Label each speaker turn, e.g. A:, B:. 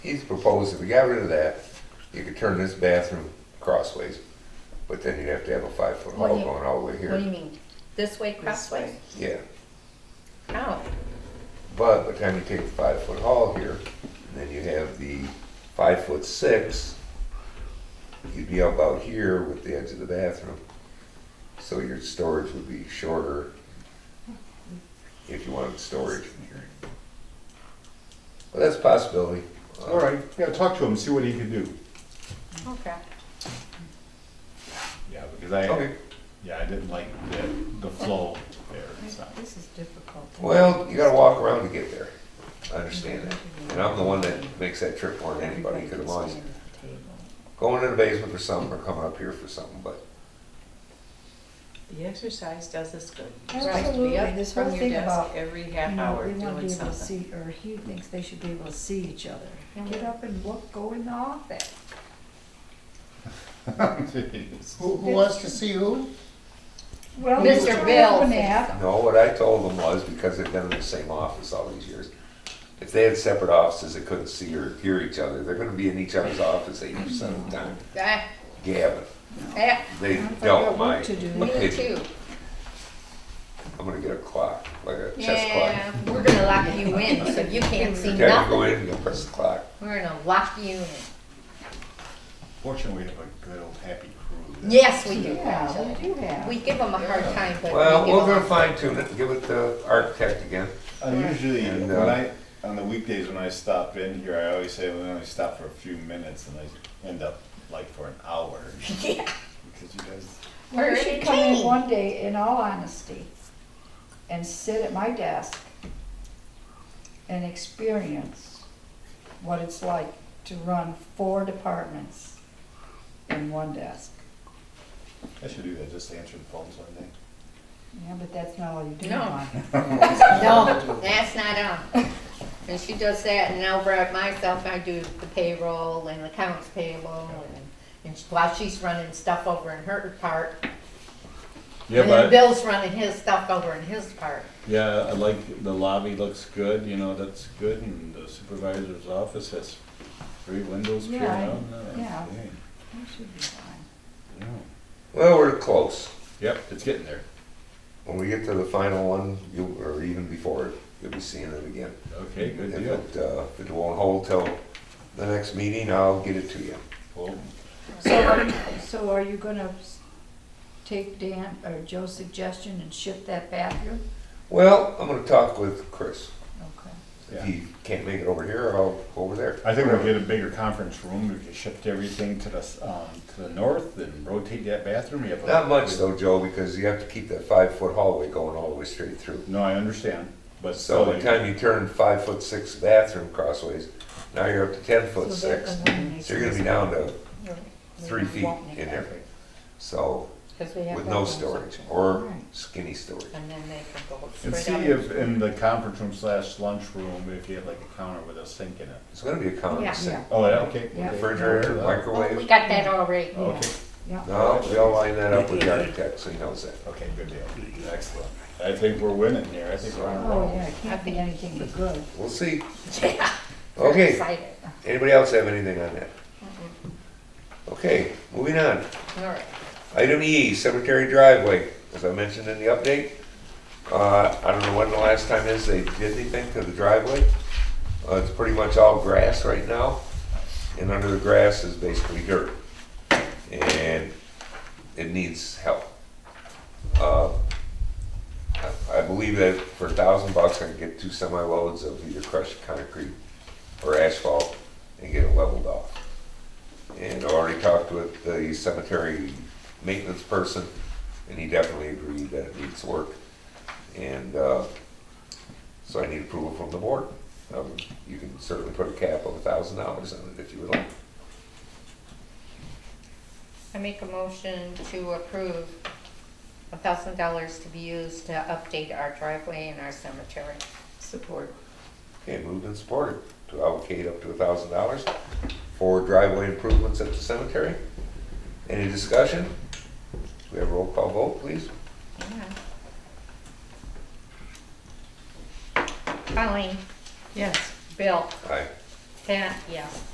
A: He's proposed if we got rid of that, you could turn this bathroom crossways, but then you'd have to have a five foot
B: What do
A: hall
B: you-
A: going all the way
B: What do
A: here.
B: you mean? This way crossway?
A: Yeah,
B: Oh,
A: but by the time you take the five foot hall here, then you have the five foot six, you'd be about here with the edge of the bathroom. So your storage would be shorter if you wanted storage. Well, that's a possibility.
C: All right, yeah, talk to him, see what he can do.
B: okay.
D: Yeah, because I,
A: Okay.
D: yeah, I didn't like the, the flow there, so.
E: This is difficult.
A: Well, you gotta walk around to get there. I understand that. And I'm the one that makes that trip more than anybody, because I'm always going to the basement for something or coming up here for something, but
E: The exercise does us good. You're supposed to
F: Absolutely,
E: be up
F: this whole
E: from your
F: thing
E: desk
F: about,
E: every
F: you
E: half
F: know,
E: hour
F: we wanna be
E: doing
F: able to
E: something.
F: see, or he thinks they should be able to see each other.
B: Yeah.
F: Get up and look, go in the office.
C: Who, who wants to see who?
F: Well,
B: Mr.
F: you try
B: Bill
F: up an
B: thinks
F: app.
A: no, what I told them was, because they've been in the same office all these years, if they had separate offices, they couldn't see or hear each other. They're gonna be in each other's office eighty percent of the time.
B: Ah,
A: Gavin,
B: ah,
A: they
F: I've
A: don't
F: got work
A: mind.
F: to do.
B: me too.
A: I'm gonna get a clock, like a chess
B: Yeah,
A: clock.
B: we're gonna lock you in, so you can't see
A: Okay, I can go
B: nothing.
A: in and go press the clock.
B: We're gonna lock you in.
D: Fortunately, we have a good old happy crew. there.
B: Yes, we do.
F: Yeah, we do have.
B: We give them a hard time, but
A: Well,
B: we give
A: we're gonna
B: 'em-
A: fine tune it and give it to architect again.
D: I usually,
A: And,
D: when
A: uh,
D: I, on the weekdays when I stop in here, I always say, well, I only stop for a few minutes and I end up like for an hour. Because you guys,
F: Well,
B: Or
F: you
B: a
F: should come in
B: cane.
F: one day, in all honesty, and sit at my desk and experience what it's like to run four departments in one desk.
D: I should do that, just answer the phones one day.
F: Yeah, but that's not all you do.
B: No.
F: Ron.
B: No, that's not on. And she does that, and over at myself, I do the payroll and accounts payable, and, and while she's running stuff over in her part,
G: Yeah,
B: And then
G: but,
B: Bill's running his stuff over in his part.
G: yeah, I like, the lobby looks good, you know, that's good, and the supervisor's office has three windows peering
F: Yeah, I-
G: out.
D: Oh,
G: and
F: yeah.
G: everything.
F: You should be fine.
G: Yeah.
A: Well, we're close.
G: Yep, it's getting there,
A: When we get to the final one, you, or even before it, you'll be seeing it again.
G: okay, good
A: If
G: deal.
A: it, uh, if it won't hold till the next meeting, I'll get it to you.
G: Well,
F: So are, so are you gonna s- take Dan or Joe's suggestion and shift that bathroom?
A: Well, I'm gonna talk with Chris.
F: Okay.
A: If
D: Yeah.
A: he can't make it over here, I'll go over there.
D: I think we'll get a bigger conference room, we can shift everything to the, s- um, to the north and rotate that bathroom. We have a-
A: Not much though, Joe, because you have to keep that five foot hallway going all the way straight through.
D: No, I understand, but.
A: So by
D: still,
A: the time you turn five foot six bathroom crossways, now you're up to ten foot
F: So that
A: six.
F: eliminates
A: So you're gonna be down to
F: No, we
A: three feet
F: won't make
A: in
F: that.
A: there. So,
B: Because we have.
A: with
B: that
A: no
B: one
A: storage
B: section.
A: or
F: Right.
A: skinny storage.
B: And then they can go
D: And
B: straight
D: see
B: up.
D: if in the conference room slash lunchroom, if you have like a counter with a sink in it.
A: It's gonna be a
B: Yeah.
A: common sink.
F: Yeah,
D: Oh, yeah, okay.
F: Yeah.
A: Refrigerator,
B: Oh, We
A: microwave.
B: got that already.
D: Oh, Okay,
F: yeah.
A: No, we all line that up with the architect, so he knows that.
D: okay, good deal, excellent. I think we're winning here, I think we're on a
F: Oh,
D: roll.
F: yeah, it can't be anything but good.
A: We'll see.
B: Yeah. We're
A: Okay,
B: Excited.
A: anybody else have anything on that? Okay, moving on.
B: All right.
A: Item E, cemetery driveway, as I mentioned in the update. Uh, I don't know when the last time is they did anything to the driveway. Uh, it's pretty much all grass right now, and under the grass is basically dirt. And it needs help. Uh, I I believe that for a thousand bucks, I can get two semi loads of either crushed concrete or asphalt and get it leveled off. And I already talked with the cemetery maintenance person, and he definitely agreed that it needs work. And, uh, so I need approval from the board. Um, you can certainly put a cap of a thousand dollars on it if you would like.
B: I make a motion to approve a thousand dollars to be used to update our driveway and our cemetery.
E: Support.
A: Okay, moved and supported to allocate up to a thousand dollars for driveway improvements at the cemetery. Any discussion? We have a roll call vote, please.
B: Yeah. Colleen,
E: Yes.
B: Bill,
A: Aye.
B: Pat, yes.